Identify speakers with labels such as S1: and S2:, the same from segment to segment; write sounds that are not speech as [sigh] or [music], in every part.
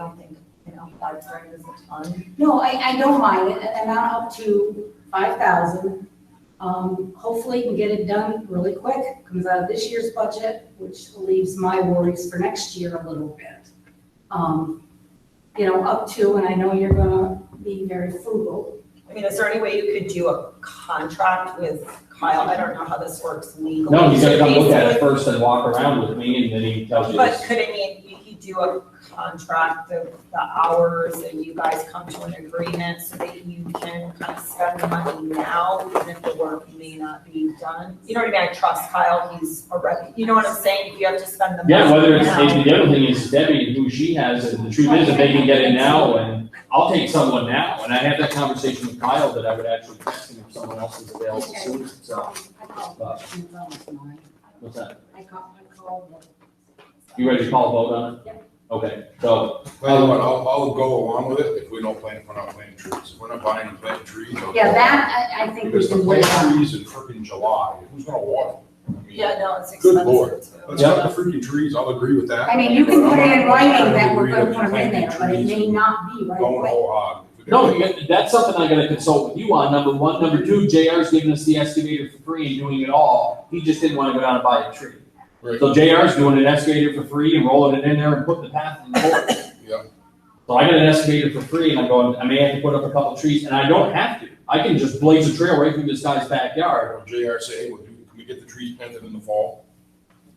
S1: I don't think, you know, five grand is a ton.
S2: No, I, I don't mind it, an amount up to five thousand. Um, hopefully we can get it done really quick, comes out of this year's budget, which leaves my worries for next year a little bit. Um, you know, up to, and I know you're gonna be very frugal.
S1: I mean, is there any way you could do a contract with Kyle? I don't know how this works legally.
S3: No, you gotta come look at it first and walk around with me and then he tells you
S1: But
S3: this.
S1: could, I mean, you could do a contract of the hours and you guys come to an agreement so that you can kind of spend the money now, even if the work may not be done? You know what I mean? I trust Kyle, he's a rep, you know what I'm saying? If you have to spend the money
S3: Yeah, whether it's,
S1: now-
S3: the other thing is Debbie and who she has, and the truth is, if they can get it now, and I'll take someone now, and I had that conversation with Kyle that I would actually text him if someone else is available soon, so,
S2: I called,
S3: uh, what's that?
S2: I called, I called.
S3: You ready to call a vote on it?
S2: Yep.
S3: Okay, so,
S4: Well,
S2: Um,
S4: but I'll, I'll go along with it if we don't plant, if we're not planting trees. If We're not buying and planting trees. I'll
S2: Yeah,
S4: go.
S2: that, I, I think we
S4: Because to
S2: can wait
S4: plant
S2: on.
S4: trees in frickin' July, who's gonna water? them? I mean,
S1: Yeah, no, it's
S4: Good
S1: expensive too.
S4: lord. Let's plant the freaking trees, I'll agree with that.
S2: I mean, you can put it in
S4: But I'm not
S2: writing that we're
S4: agree
S2: gonna
S4: with
S2: put them in
S4: planting
S2: there, but it
S4: trees
S2: may
S4: and
S2: not be right
S4: Going uh,
S2: away.
S4: whole hog.
S3: no, you- that's something I gotta consult with you on, number one. Number two, JR's giving us the excavator for free and doing it all. He just didn't wanna go down and buy a tree.
S4: Right.
S3: So JR's doing an excavator for free and rolling it in there and putting the path in the hole.
S4: [coughs] Yeah.
S3: So I got an excavator for free and I'm going, I may have to put up a couple trees and I don't have to. I can just blaze a trail right through this guy's backyard.
S4: Or JR say, hey, we'll do, can we get the trees planted in the fall?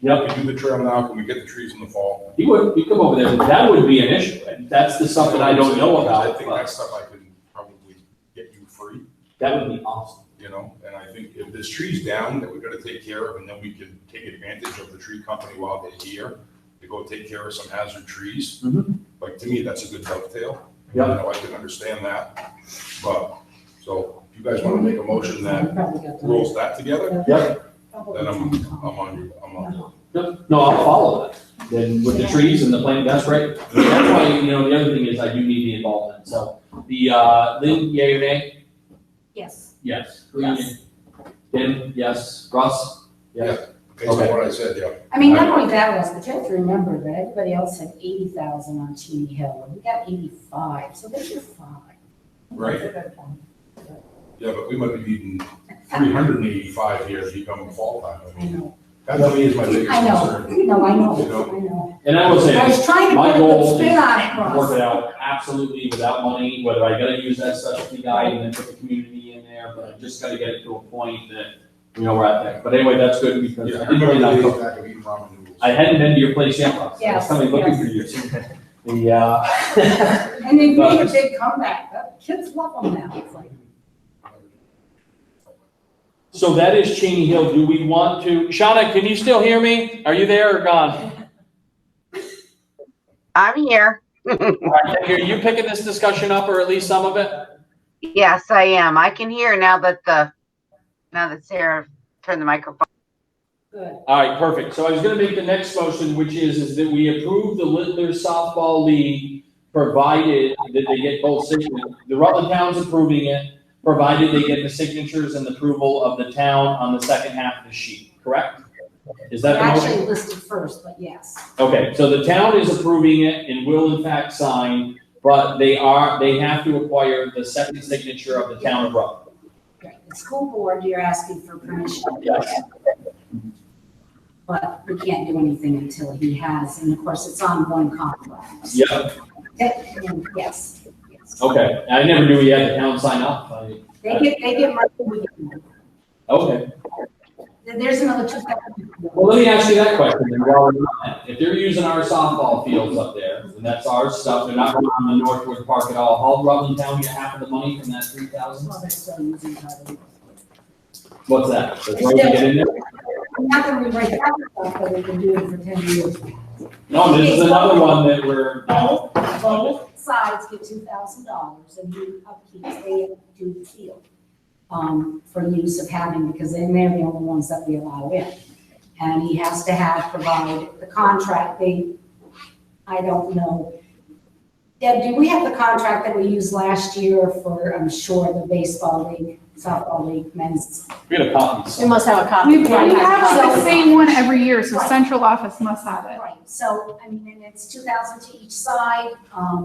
S3: Yep.
S4: Can we do the trail now? Can we get the trees in the fall?
S3: He would, he'd come over there, but that would be an issue. And that's the stuff that I don't know
S4: I
S3: about,
S4: think
S3: but
S4: that's stuff I can probably get you free.
S3: that would be awesome.
S4: you know, and I think if this tree's down, that we're gonna take care of, and then we can take advantage of the tree company while they're here to go take care of some hazard trees.
S3: Mhm.
S4: Like, to me, that's a good dovetail.
S3: Yeah.
S4: You know, I can understand that, but, so, if you guys wanna make a motion that rolls that together,
S3: Yep.
S4: then I'm, I'm on you, I'm on you.
S3: No, no, I'll follow that. Then with the trees and the plant, that's right. That's why, you know, the other thing is I do need the involvement. So the, uh, Lynn, yay or nay?
S2: Yes,
S3: Yes.
S1: Yes.
S3: Tim, yes. Russ? Yes.
S4: Based on
S3: Okay.
S4: what I said, yeah.
S2: I mean, not only that, Russ, but you have to remember that everybody else had eighty thousand on Cheney Hill, and we got eighty-five, so there's your five.
S4: Right.
S1: That's a good
S3: [laughs]
S1: point.
S4: Yeah, but we might be needing three hundred and eighty-five here to become a fall time. I
S2: I
S4: mean,
S2: know,
S4: That to me is my biggest
S2: I know,
S4: concern.
S2: no, I know,
S4: You
S2: I know.
S3: And I will say,
S2: I was trying to
S3: my
S2: put a
S3: goal
S2: good
S3: is
S2: spin on it,
S3: to work
S2: Russ.
S3: it out absolutely without money, whether I gotta use that specialty guide and then put the community in there, but I just gotta get it to a point that, you know, we're at that. But anyway, that's good because
S4: Yeah,
S3: I didn't really
S4: everybody
S3: know.
S4: lays back and eat ramen noodles.
S3: I hadn't been to your place yet, Russ. I was
S2: Yes,
S3: coming looking
S2: yes.
S3: for you. The, uh, [laughs]
S2: And they made a big comeback, The kids love them now, it's like,
S3: So that is Cheney Hill. Do we want to, Shauna, can you still hear me? Are you there or gone?
S5: I'm here.
S3: All right, Are you picking this discussion up or at least some of it?
S5: Yes, I am. I can hear now that the, now that Sarah turned the microphone.
S2: good.
S3: All right, perfect. So I was gonna make the next motion, which is, is that we approve the Littler Softball League, provided that they get both signatures. The Rutland Town's approving it, provided they get the signatures and the approval of the town on the second half of the sheet, correct? Is
S2: They're
S3: that the motion?
S2: actually listed first, but yes,
S3: Okay, so the town is approving it and will in fact sign, but they are, they have to acquire the second signature of the town of Rutland.
S2: right, the school board, you're asking for permission.
S3: Yes.
S2: But we can't do anything until he has, and of course, it's on one contract.
S3: Yep,
S2: That- and Yes, yes.
S3: okay. I never knew we had the town sign up. I-
S2: They get, they get money, we get money.
S3: Okay,
S2: Then There's another two thousand.
S3: well, let me ask you that question then while we're on that. If they're using our softball fields up there, and that's our stuff, they're not going on the Northwood Park at all, how Rutland Town get half of the money from that three thousand? What's that? That's right, you get in there?
S2: Not gonna rewrite that stuff, but we can do it for ten years.
S3: No, this is another one that we're, no,
S2: Both, both sides get two thousand dollars and you upkeep, they do the field. Um, for use of having, because then they're the only ones that we allow in. And he has to have, provide the contract, they, I don't know. Deb, do we have the contract that we used last year for, I'm sure, the baseball league, softball league, men's?
S3: We had a copy.
S6: We must have a copy.
S7: We we have the same one every year, so central office must have it.
S2: Right, so, I mean, and it's two thousand to each side, um,